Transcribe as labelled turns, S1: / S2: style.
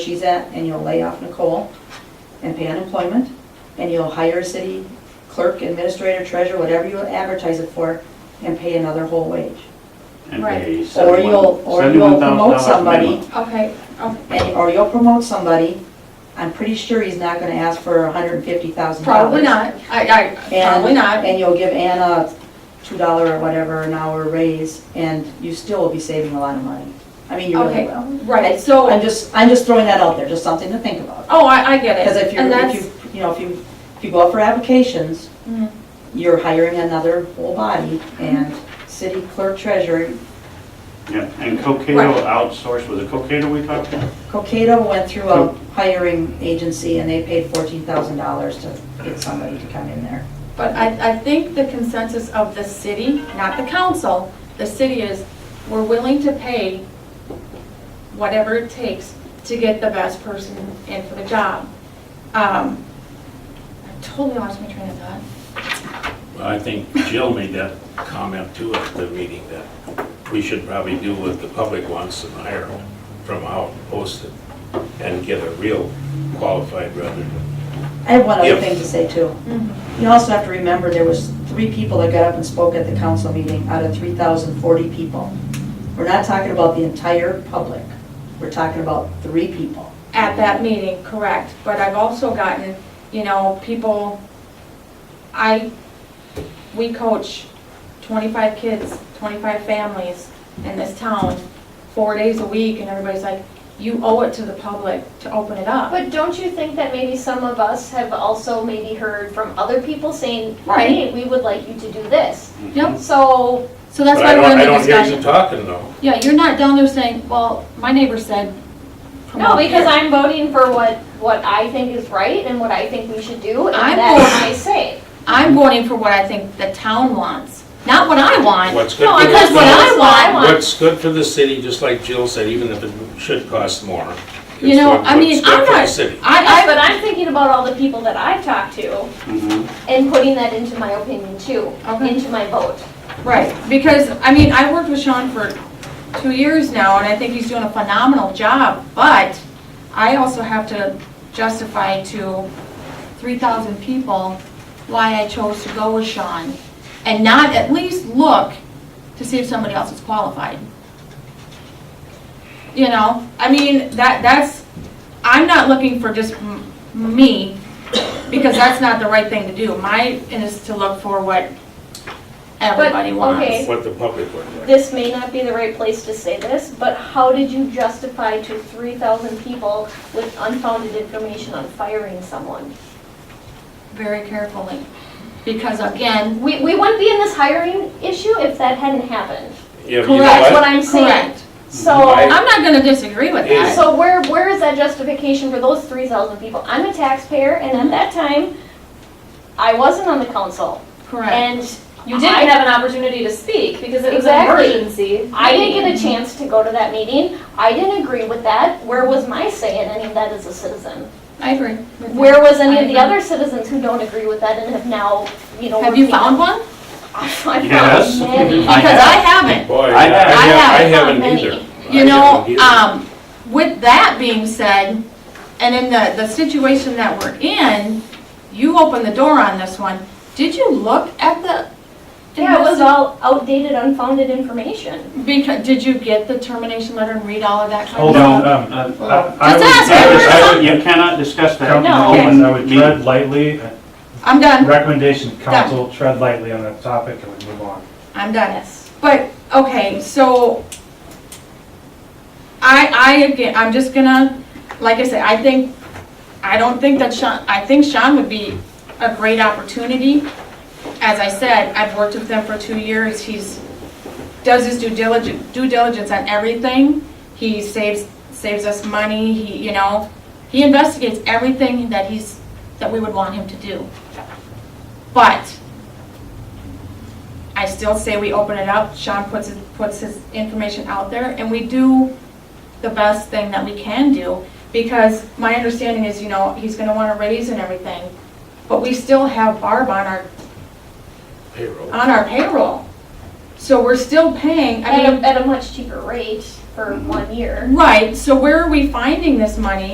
S1: she's at, and you'll lay off Nicole and pay unemployment, and you'll hire a city clerk, administrator, treasurer, whatever you advertise it for, and pay another whole wage.
S2: and
S3: Right.
S2: pay
S1: Or you'll, or you'll promote
S2: $71,000
S1: somebody,
S2: minimum.
S3: Okay, um, okay,
S1: and- or you'll promote somebody, I'm pretty sure he's not gonna ask for hundred and fifty thousand dollars.
S3: probably not, I, I, probably not,
S1: And you'll give Anna a two dollar or whatever an hour raise, and you still will be saving a lot of money. I mean, you really
S3: okay,
S1: will.
S3: right,
S1: I'm
S3: so,
S1: just, I'm just throwing that out there, just something to think about.
S3: oh, I, I get it.
S1: Because if you're,
S3: And
S1: if
S3: that's,
S1: you, you know, if you, if you go out for applications,
S3: Mhm.
S1: you're hiring another whole body and city clerk treasurer.
S2: Yeah, and Cocado
S3: Right.
S2: outsourced, was it Cocado we talked to?
S1: Cocado went through a hiring agency and they paid fourteen thousand dollars to get somebody to come in there.
S3: but I, I think the consensus of the city, not the council, the city is, we're willing to pay whatever it takes to get the best person in for the job. Um, I totally lost my train of thought.
S4: I think Jill made that comment too at the meeting that we should probably do what the public wants and hire from out, post it, and get a real qualified rather than.
S1: I have one other
S4: Yep.
S1: thing to say too. You also have to remember, there was three people that got up and spoke at the council meeting out of 3,040 people. We're not talking about the entire public. We're talking about three people.
S3: at that meeting, correct, but I've also gotten, you know, people, I, we coach twenty-five kids, twenty-five families in this town, four days a week, and everybody's like, you owe it to the public to open it up.
S5: But don't you think that maybe some of us have also maybe heard from other people saying,
S3: Right.
S5: hey, we would like you to do this?
S3: Yep,
S5: So,
S3: so that's
S4: But I
S3: why
S4: don't-
S3: we're in
S4: I
S3: the
S4: don't hear you
S3: discussion.
S4: talking though.
S3: Yeah, you're not down there saying, well, my neighbor said.
S5: no,
S3: promote
S5: because
S3: here."
S5: I'm voting for what, what I think is right and what I think we should do, and
S3: I'm
S5: that's
S3: voting-
S5: my say.
S3: I'm voting for what I think the town wants, not what I want.
S4: What's good
S5: No,
S4: for
S3: Because what
S4: the,
S3: I want
S4: what's good for the city, just like Jill said, even if it should cost more.
S3: You
S4: it's
S3: know,
S4: what-
S3: I mean,
S4: what's good
S3: I'm
S4: for the
S3: not-
S4: city.
S3: I,
S5: Yes,
S3: I,
S5: But I'm thinking about all the people that I've talked to
S2: Mhm.
S5: and putting that into my opinion too,
S3: Okay.
S5: into my vote.
S3: Right, because, I mean, I worked with Sean for two years now, and I think he's doing a phenomenal job, but I also have to justify to 3,000 people why I chose to go with Sean, and not at least look to see if somebody else is qualified. You know, I mean, that, that's, I'm not looking for just m- me, because that's not the right thing to do. Mine is to look for what everybody wants.
S5: okay.
S4: What the public would like.
S5: This may not be the right place to say this, but how did you justify to three thousand people with unfounded information on firing someone?
S3: very carefully. Because again,
S5: We, we wouldn't be in this hiring issue if that hadn't happened.
S4: Yeah, but you know
S5: That's
S3: Correct.
S5: what
S4: what?
S5: I'm saying.
S3: correct.
S5: So,
S4: Right.
S3: I'm not gonna disagree with that.
S5: so where, where is that justification for those three thousand people? I'm a taxpayer and at that time, I wasn't on the council.
S3: Correct.
S5: And
S6: You didn't have an opportunity to speak because it was an
S5: Exactly.
S6: emergency.
S5: I didn't get a chance to go to that meeting. I didn't agree with that. Where was my say in any of that as a citizen?
S3: I agree. with
S5: Where was any of the
S3: I agree.
S5: other citizens who don't agree with that and have now, you know?
S3: that. Have you
S5: repeated-
S3: found one?
S5: I found
S2: Yes.
S5: many.
S2: I
S3: Because
S2: have.
S3: I haven't.
S4: Boy,
S2: I
S4: I
S2: have-
S4: have- I
S5: I have
S4: haven't
S5: many.
S4: either.
S3: You
S4: I
S3: know,
S4: haven't either.
S3: um, with that being said, and in the, the situation that we're in, you opened the door on this one. Did you look at the?
S5: Yeah, it was all outdated, unfounded information.
S3: Because, did you get the termination letter and read all of that? kind of
S7: Hold
S3: stuff?
S7: on, um, um, I I
S3: Just ask
S2: I would- I
S7: would,
S2: would- You cannot discuss that. in
S5: No.
S2: open
S7: I would, I would
S2: meeting.
S7: tread lightly,
S3: I'm done.
S7: recommendation, council, tread lightly on that topic and we move on.
S3: I'm done.
S5: Yes.
S3: But, okay, so, I, I, again, I'm just gonna, like I said, I think, I don't think that Sean, I think Sean would be a great opportunity. As I said, I've worked with him for two years, he's, does his due diligence, due diligence on everything. He saves, saves us money, he, you know, he investigates everything that he's, that we would want him to do. But, I still say we open it up, Sean puts his, puts his information out there, and we do the best thing that we can do, because my understanding is, you know, he's gonna wanna raise and everything, but we still have Barb on our,
S4: Payroll.
S3: on our payroll. So we're still paying, I
S5: At a,
S3: mean,
S5: at a much cheaper rate for one year.
S3: right, so where are we finding this money